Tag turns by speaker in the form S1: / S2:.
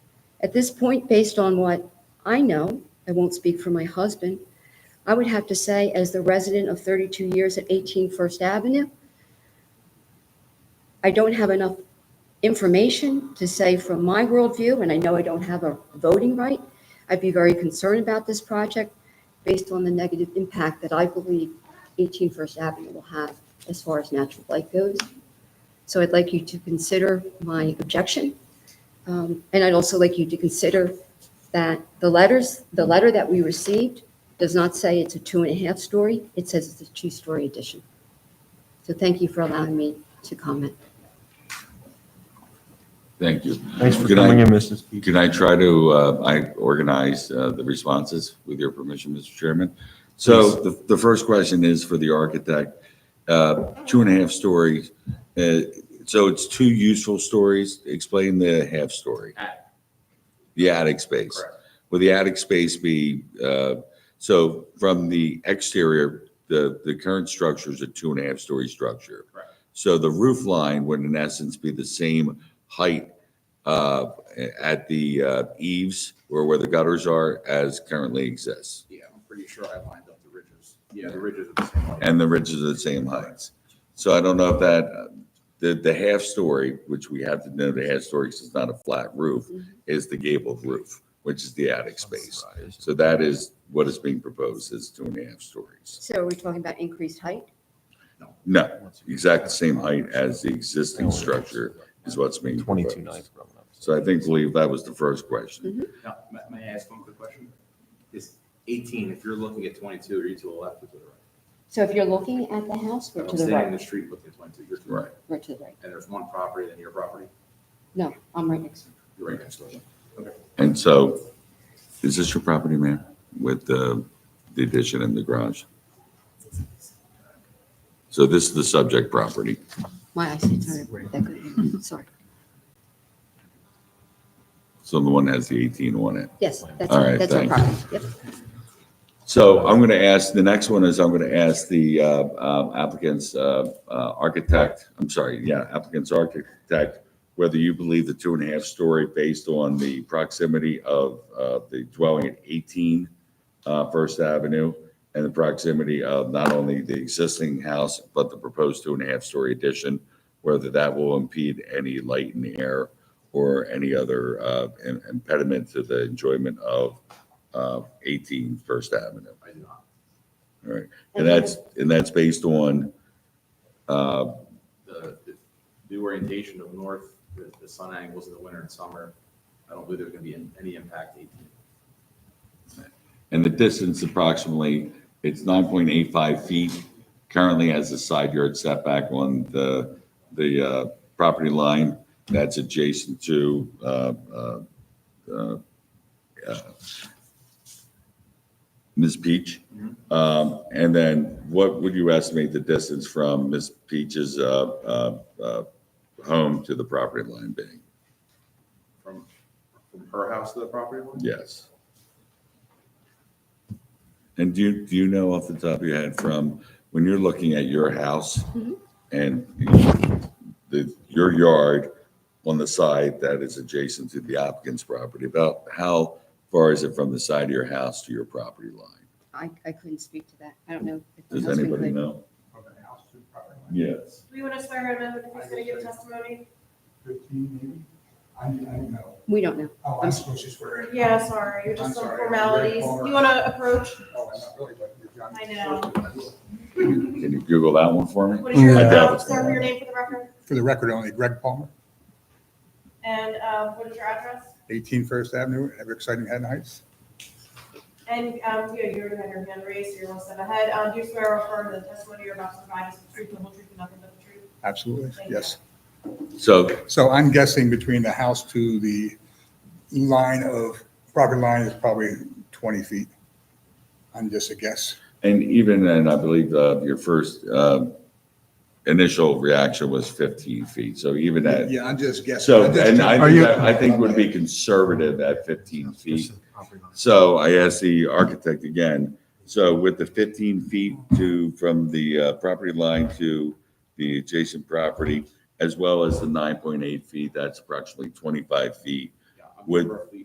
S1: At this point, based on what I know, I won't speak for my husband, I would have to say, as the resident of 32 years at 18 First Avenue, I don't have enough information to say from my worldview, and I know I don't have a voting right, I'd be very concerned about this project based on the negative impact that I believe 18 First Avenue will have as far as natural light goes. So I'd like you to consider my objection. Um, And I'd also like you to consider that the letters, the letter that we received does not say it's a two and a half story. It says it's a two-story addition. So thank you for allowing me to comment.
S2: Thank you.
S3: Thanks for
S2: Could I-
S3: coming in, Mrs. Peach.
S2: Can I try to, uh, I organize uh, the responses with your permission, Mr. Chairman? So the, the first question is for the architect, uh, two and a half stories. uh, So it's two useful stories. Explain the half story.
S4: Attic.
S2: The attic space.
S4: Correct.
S2: Will the attic space be, uh, so from the exterior, the, the current structure is a two and a half story structure.
S4: Correct.
S2: So the roof line would in essence be the same height uh, at the uh, eaves or where the gutters are as currently exists.
S4: Yeah, I'm pretty sure I lined up the ridges. Yeah, the ridges are the same height.
S2: And the ridges are the same heights. So I don't know if that, uh, the, the half story, which we have to know the half story because it's not a flat roof, is the gabled roof, which is the attic space. So that is what is being proposed is two and a half stories.
S1: So are we talking about increased height?
S2: No, exact same height as the existing structure is what's being proposed.
S3: Twenty-two nine.
S2: So I think, believe that was the first question.
S4: Now, may, may I ask one quick question? Is eighteen, if you're looking at twenty-two, are you to the left or to the right?
S1: So if you're looking at the house, we're
S4: I'm
S1: to the
S4: sitting in
S1: right,
S4: the street looking at twenty-two, you're to the
S2: Right.
S4: right.
S1: we're to the right.
S4: And there's one property, then your property,
S1: No, I'm right next.
S4: you're right next to it.
S2: And so, is this your property, ma'am, with the the addition and the garage? So this is the subject property.
S1: My eyesight's not that good. Sorry.
S2: So the one has the 18 on it.
S1: Yes, that's,
S2: All right,
S1: that's our
S2: thanks.
S1: property. Yep.
S2: So I'm going to ask, the next one is I'm going to ask the uh, um, applicant's uh, uh, architect, I'm sorry, yeah, applicant's architect, whether you believe the two and a half story based on the proximity of uh, the dwelling at 18 uh, First Avenue and the proximity of not only the existing house, but the proposed two and a half story addition, whether that will impede any light and air or any other uh, im- impediment to the enjoyment of uh, 18 First Avenue.
S4: I do not.
S2: All right, and that's, and that's based on, uh,
S4: The, the- the orientation of north, the, the sun angles in the winter and summer, I don't believe there's gonna be an- any impact to eighteen.
S2: and the distance approximately, it's 9.85 feet. Currently has a side yard setback on the, the uh, property line that's adjacent to uh, uh, uh, uh, Ms. Peach. Um, And then what would you estimate the distance from Ms. Peach's uh, uh, uh, home to the property line being?
S4: From, from her house to the property line?
S2: Yes. And do you, do you know off the top of your head from, when you're looking at your house and the, your yard on the side that is adjacent to the applicant's property, about how far is it from the side of your house to your property line?
S1: I, I couldn't speak to that. I don't know. if my
S2: Does
S1: husband
S2: anybody
S1: could.
S2: know?
S5: From the house to the property line,
S2: Yes.
S6: Do we want to swear him in if he's going to give testimony?
S5: fifteen maybe? I don't, I don't know.
S1: We don't know.
S5: Oh, I'm supposed to swear in.
S6: Yeah, sorry,
S5: I'm
S6: just some
S5: sorry,
S6: formalities.
S5: I'm very
S6: You want to approach?
S5: Oh, I'm not really, but you're John.
S6: I know.
S2: Can you Google that one for me?
S6: What is your,
S5: Yeah.
S6: um, sir, your name for the record?
S5: For the record, only Greg Palmer,
S6: And um, what is your address?
S5: 18 First Avenue, ever exciting Haddon Heights.
S6: And um, you you already had your hand raised, so you're one step ahead. Um, Do you swear or affirm that the testimony you're about to provide is the truth, the whole truth, and nothing but the truth?
S5: Absolutely,
S6: Thank you.
S5: yes.
S2: So
S5: So I'm guessing between the house to the line of, property line is probably 20 feet. I'm just a guess.
S2: And even, and I believe uh, your first uh, initial reaction was 15 feet, so even at,
S5: Yeah, I'm just guessing.
S2: so,
S5: I'm just
S2: and I
S5: checking.
S2: think, that- I think would be conservative at 15 feet. So I asked the architect again, so with the 15 feet to, from the uh, property line to the adjacent property, as well as the 9.8 feet, that's approximately 25 feet
S4: Yeah, I'm
S2: Would-
S4: roughly